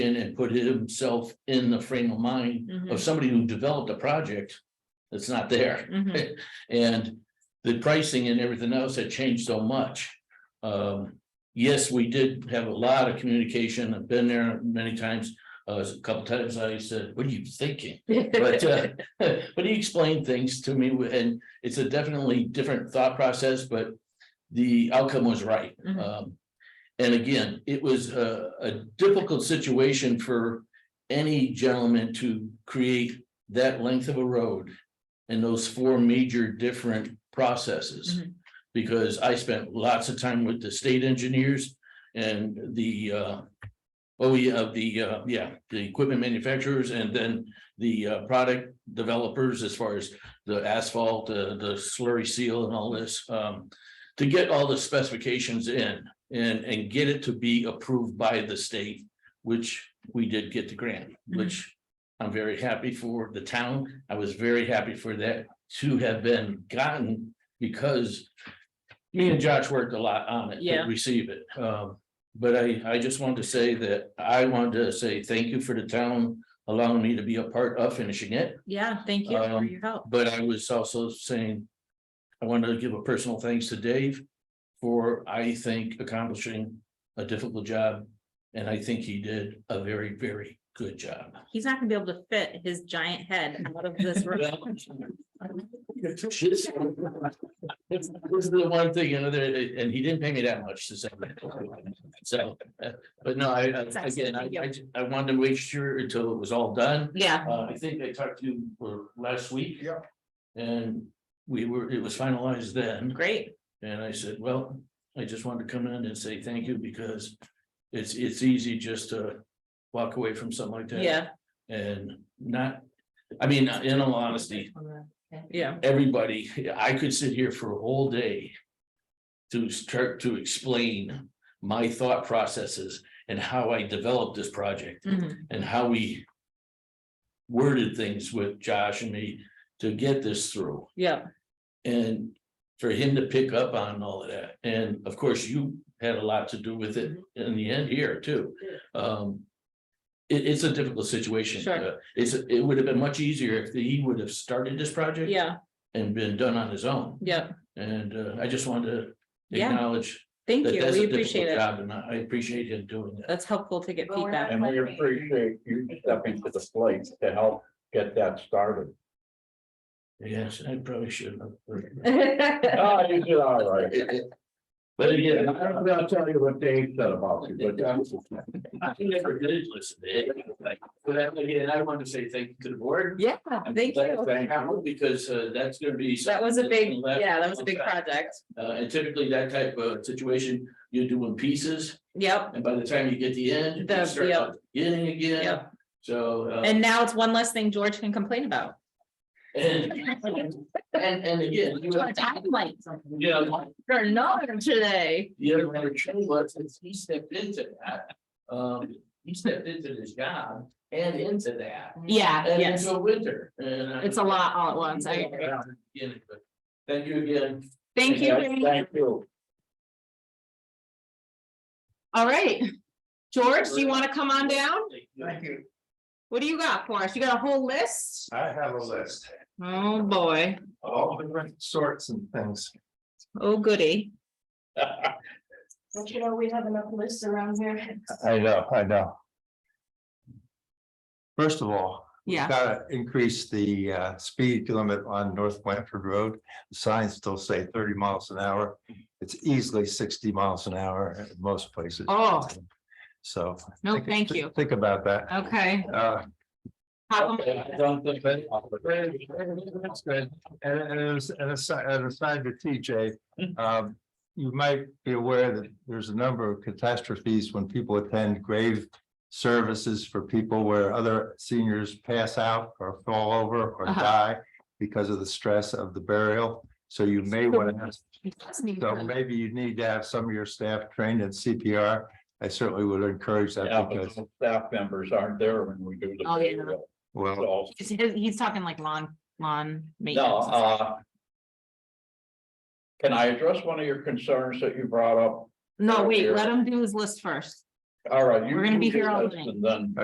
in and put himself in the frame of mind Mhm, of somebody who developed a project that's not there. mhm. And the pricing and everything else had changed so much. Um, yes, we did have a lot of communication. I've been there many times. Uh, a couple times I said, what are you thinking? But, uh, but he explained things to me and it's a definitely different thought process, but the outcome was right. Mhm. Um, and again, it was a, a difficult situation for any gentleman to create that length of a road and those four major different processes. Mhm. Because I spent lots of time with the state engineers and the, uh, oh, yeah, the, uh, yeah, the equipment manufacturers and then the, uh, product developers as far as the asphalt, the, the slurry seal and all this, um, to get all the specifications in and, and get it to be approved by the state, which we did get the grant, which I'm very happy for the town. I was very happy for that to have been gotten because me and Josh worked a lot on it to Yeah. receive it. Um, but I, I just wanted to say that I wanted to say thank you for the town allowing me to be a part of finishing it. Yeah, thank you for Um, your help. But I was also saying, I wanted to give a personal thanks to Dave for, I think, accomplishing a difficult job. And I think he did a very, very good job. He's not gonna be able to fit his giant head out of this room. This is the one thing, you know, that, and he didn't pay me that much to say that. So, uh, but no, I, I- again, I, I, I wanted to make sure until it was all done. Yeah, Uh, I think I talked to you for last week. Yeah. And we were, it was finalized then, great. and I said, well, I just wanted to come in and say thank you because. It's, it's easy just to walk away from something like that. Yeah, And not, I mean, in all honesty, yeah. everybody, I could sit here for a whole day. To start to explain my thought processes and how I developed this project mhm. and how we worded things with Josh and me to get this through Yeah, and for him to pick up on all of that. And of course, you had a lot to do with it Mm-hmm. in the end here too. Um, it, it's a difficult situation. Sure. Uh, It's, it would have been much easier if he would have started this project yeah, and been done on his own. yeah. And, uh, I just wanted to Yeah, acknowledge thank that you. that's We a appreciate difficult it. job and I I appreciate him doing that. That's helpful to get Well, we're not- feedback. And we appreciate you stepping to the plate to help get that started. Yes, I probably shouldn't have. Oh, you did all right. But And again, I don't know, I'll tell you what Dave said about you, but uh, I never did listen to it. like, But I- again, I want to say thank you to the board. Yeah, I'm thank glad you. that happened Because uh, that's gonna be. That was a something that's big, gonna last yeah, that was a big long time. project. Uh, and typically that type of situation, you do in pieces, Yep, and by the time you get the end, The- you start yep. out beginning again, yep. so. uh, And now it's one less thing George can complain about. And, and, and again, you have- you know, For none today. the other one, Trey, was, is he stepped into that. Um, he stepped into this job and into that. Yeah, And yes. it's a winter and. I- It's a lot all at once. I agree. Yeah, but Thank you again. Thank you. Jamie. thank you. All right. George, do you want to come on down? you. What do you got for us? You got a whole list? I have a list, Oh, boy. all different sorts and things. Oh, goody. Don't you know, we have enough lists around here. I know, I know. First of all, Yeah. gotta increase the uh speed limit on North Blanford Road. The Signs still say thirty miles an hour. It's easily sixty miles an hour at most places. Oh. So. No, think- Oh, thank you. Oh. Think about that. Okay. Uh, How come- That's good. And and as and aside, and aside to TJ, Mm. um, you might be aware that there's a number of catastrophes when people attend grave. Services for people where other seniors pass out or fall over or Uh-huh. die because of the stress of the burial. So you may want to, so maybe you need to have some of your staff trained in CPR. I certainly would encourage Yeah, that but because, the staff members aren't there when we do the. Oh, yeah. payroll. well, So, He's, he's talking like lawn, lawn no, maintenance. and stuff. uh. Can I address one of your concerns that you brought up? No, wait, let him do his list first. All right. you- We're gonna you be do here all this night. And then